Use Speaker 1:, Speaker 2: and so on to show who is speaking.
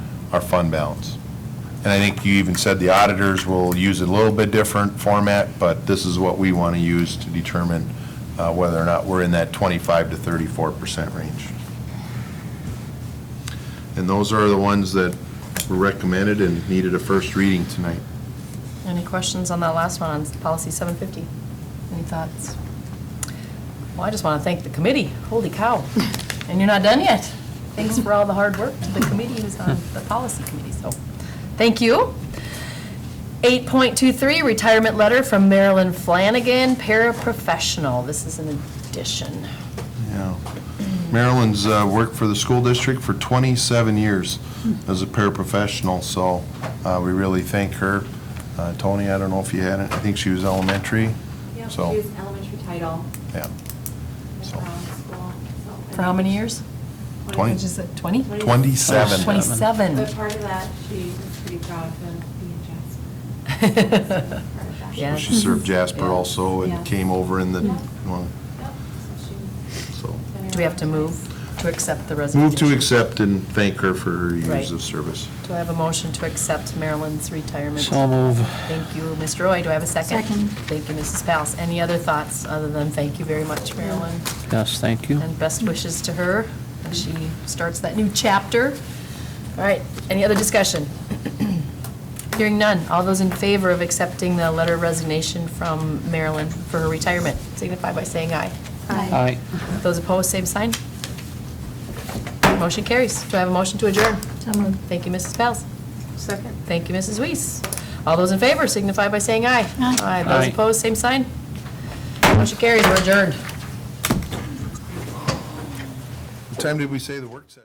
Speaker 1: our fund balance. And I think you even said the auditors will use a little bit different format, but this is what we want to use to determine uh, whether or not we're in that 25 to 34 percent range. And those are the ones that were recommended and needed a first reading tonight.
Speaker 2: Any questions on that last one, on policy 750? Any thoughts? Well, I just want to thank the committee. Holy cow. And you're not done yet. Thanks for all the hard work to the committee who's on the policy committee, so thank you. 8.23, retirement letter from Marilyn Flanagan, paraprofessional. This is an addition.
Speaker 1: Yeah. Marilyn's uh, worked for the school district for 27 years as a paraprofessional, so uh, we really thank her. Uh, Tony, I don't know if you had it, I think she was elementary,
Speaker 3: Yeah, she
Speaker 1: so,
Speaker 3: was an elementary title
Speaker 1: yeah.
Speaker 3: at
Speaker 1: So-
Speaker 3: Brown School. so-
Speaker 2: For how many years?
Speaker 1: Twenty.
Speaker 2: Which is it, 20?
Speaker 3: Twenty.
Speaker 1: 27.
Speaker 2: 27.
Speaker 3: But part of that, she was pretty proud to be in Jasper.
Speaker 2: Yeah.
Speaker 1: She served Jasper
Speaker 2: Yeah.
Speaker 1: also
Speaker 3: Yeah.
Speaker 1: and came over in the,
Speaker 3: Yeah.
Speaker 1: well,
Speaker 3: Yep, so she-
Speaker 1: so.
Speaker 2: Do we have to move to accept the resignation?
Speaker 1: Move to accept and thank her for her
Speaker 2: Right.
Speaker 1: years of service.
Speaker 2: Do I have a motion to accept Marilyn's retirement?
Speaker 4: So move.
Speaker 2: Thank you, Mr. Roy. Do I have a second?
Speaker 5: Second.
Speaker 2: Thank you, Mrs. Pals. Any other thoughts other than thank you very much, Marilyn?
Speaker 4: Yes, thank you.
Speaker 2: And best wishes to her as she starts that new chapter. All right, any other discussion? Hearing none. All those in favor of accepting the letter of resignation from Marilyn for her retirement signify by saying aye.
Speaker 4: Aye.
Speaker 5: Mm-hmm.
Speaker 2: Those opposed, same sign. Motion carries. Do I have a motion to adjourn?
Speaker 5: So moved.
Speaker 2: Thank you, Mrs. Pals.
Speaker 5: Second.
Speaker 2: Thank you, Mrs. Weiss. All those in favor signify by saying aye.
Speaker 5: Aye.
Speaker 2: Those
Speaker 4: Aye.
Speaker 2: opposed, same sign. Motion carries, we're adjourned.
Speaker 1: What time did we say the work session?